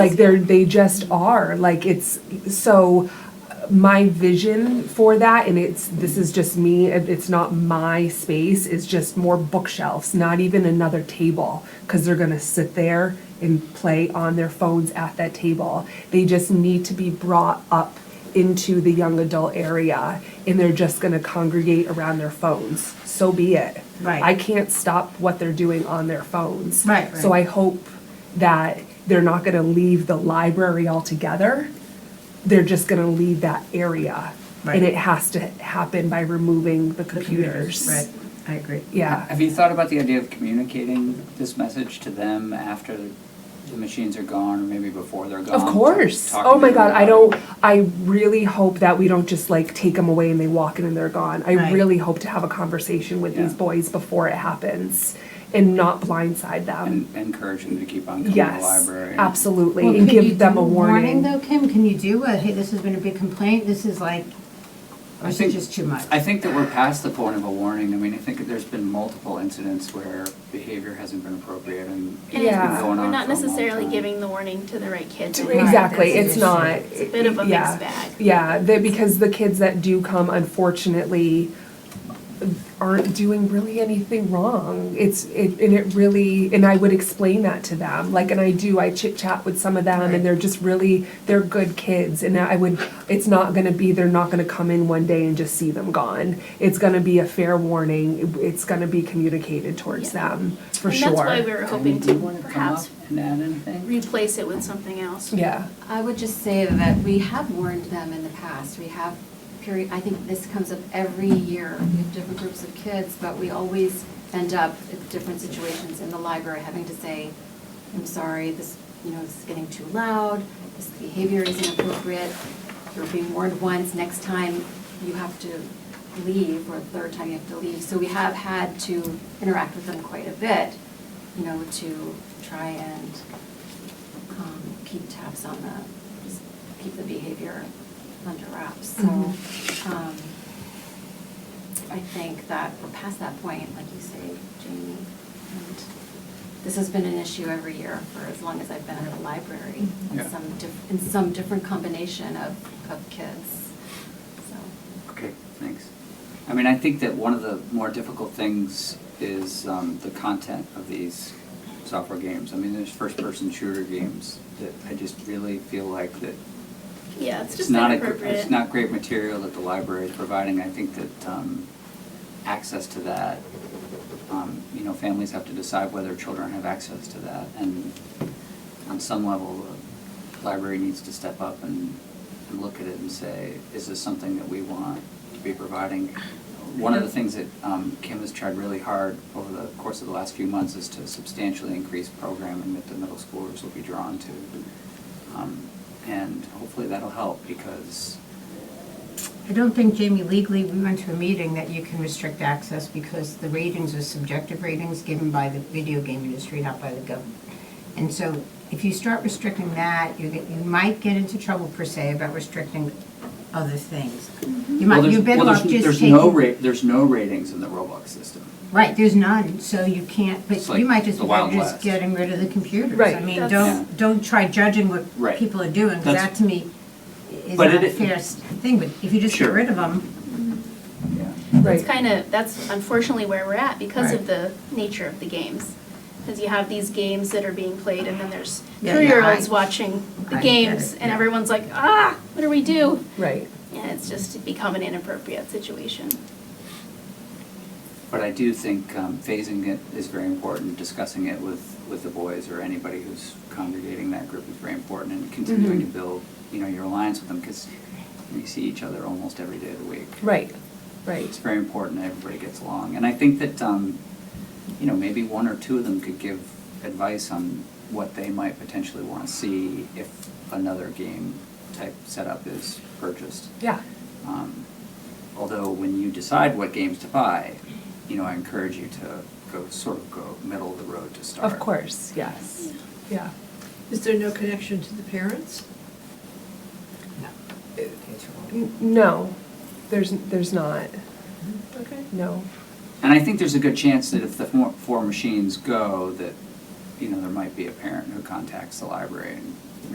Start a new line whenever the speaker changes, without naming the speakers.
Like they're, they just are, like it's, so my vision for that, and it's, this is just me, it- it's not my space, is just more bookshelves, not even another table, because they're gonna sit there and play on their phones at that table. They just need to be brought up into the young adult area, and they're just gonna congregate around their phones, so be it.
Right.
I can't stop what they're doing on their phones.
Right,
So I
right.
hope that they're not going to leave the library altogether. They're just going to leave that area.
Right.
And it has to happen by removing the computers.
Right, I agree.
Yeah.
Have you thought about the idea of communicating this message to them after the machines are gone, or maybe before they're gone?
Of course.
Talking
Oh my
to
God.
them
I
about
don't,
it.
I really hope that we don't just like take them away and they walk in and they're gone. I
Right.
really hope to have a conversation with these
Yeah.
boys before it happens and not blindside them.
And encourage them to keep on coming to the
Yes,
library.
absolutely.
Well,
And
could you
give them
do
a warning.
though, Kim, can you do a, hey, this has been a big complaint, this is like, or
I
is it
think-
just too much?
I think that we're past the point of a warning. I mean, I think that there's been multiple incidents where behavior hasn't been appropriate and it's been going
And it's-
Yeah.
on for a long
We're not necessarily
time.
giving the warning to the right kids.
To-
either.
Exactly,
Right,
it's
that's the
not.
issue.
It's a bit of a
yeah.
mixed bag.
Yeah, they- because the kids that do come unfortunately aren't doing really anything wrong. It's, it and it really, and I would explain that to them, like, and I do, I chit chat with some of them and they're just really, they're good kids. And I would, it's not gonna be, they're not gonna come in one day and just see them gone. It's gonna be a fair warning, it's gonna be communicated towards
Yeah.
them, for sure.
And that's why we were
Tony,
hoping
do you
to
wanna come
perhaps
up And add anything?
replace it with something else.
Yeah,
I would just say that we have warned them in the past. We have period, I think this comes up every year. We have different groups of kids, but we always end up in different situations in the library having to say, I'm sorry, this, you know, this is getting too loud, this behavior is inappropriate. You're being warned once, next time you have to leave, or third time you have to leave. So we have had to interact with them quite a bit, you know, to try and um, keep tabs on the, just keep the behavior under wraps. So um, I think that we're past that point, like you say, Jamie. And this has been an issue every year for as long as I've been at the library, in
Yeah.
some, diff- in some different combination of, of kids. So,
Okay, thanks. I mean, I think that one of the more difficult things is um, the content of these software games. I mean, there's first-person shooter games that I just really feel like that
Yeah, it's
it's
just
not, a
inappropriate.
gr- it's not great material that the library is providing. I think that um, access to that, um, you know, families have to decide whether children have access to that. And on some level, the library needs to step up and, and look at it and say, is this something that we want to be providing? One of the things that um, Kim has tried really hard over the course of the last few months is to substantially increase programming that the middle schoolers will be drawn to. Um, And hopefully that'll help because,
I don't think, Jamie, legally, we went to a meeting that you can restrict access because the ratings are subjective ratings given by the video game industry, not by the government. And so if you start restricting that, you get, you might get into trouble per se about restricting other things. You
Mm-hmm. well,
might,
there's,
you're better
well,
off
there's,
just
there's no
taking.
ra, there's no ratings in the Roblox system.
Right, there's none, so you can't, but
It's like
you might just
the
be
Wild
better just
West.
getting rid of the computers. I
Right.
mean,
That's-
don't, don't try judging what
Right.
people are doing, 'cause
That's-
that to me is
But
not
it-
a fair s- thing, but if you just get
Sure.
rid of them.
Yeah.
right.
It's kind of, that's unfortunately where we're at because of
Right.
the nature of the games. Because you have these games that are being played and then there's
Yeah, yeah,
three-year-olds
I-
watching the
I get
games
it,
and
yeah.
everyone's like, ah, what do we do?
Right.
And it's just become an inappropriate situation.
But I do think um, phasing it is very important, discussing it with, with the boys or anybody who's congregating that group is very important and continuing
Mm-hmm.
to build, you know, your alliance with them because you see each other almost every day of the week.
Right, right.
It's very important that everybody gets along. And I think that, um, you know, maybe one or two of them could give advice on what they might potentially want to see if another game type setup is purchased.
Yeah,
Um, Although when you decide what games to buy, you know, I encourage you to go, sort of go middle of the road to start.
of course, yes. Yeah.
Is there no connection to the parents?
N- No, there's, there's not,
Mm.
Okay.
no.
And I think there's a good chance that if the four, four machines go, that, you know, there might be a parent who contacts the library and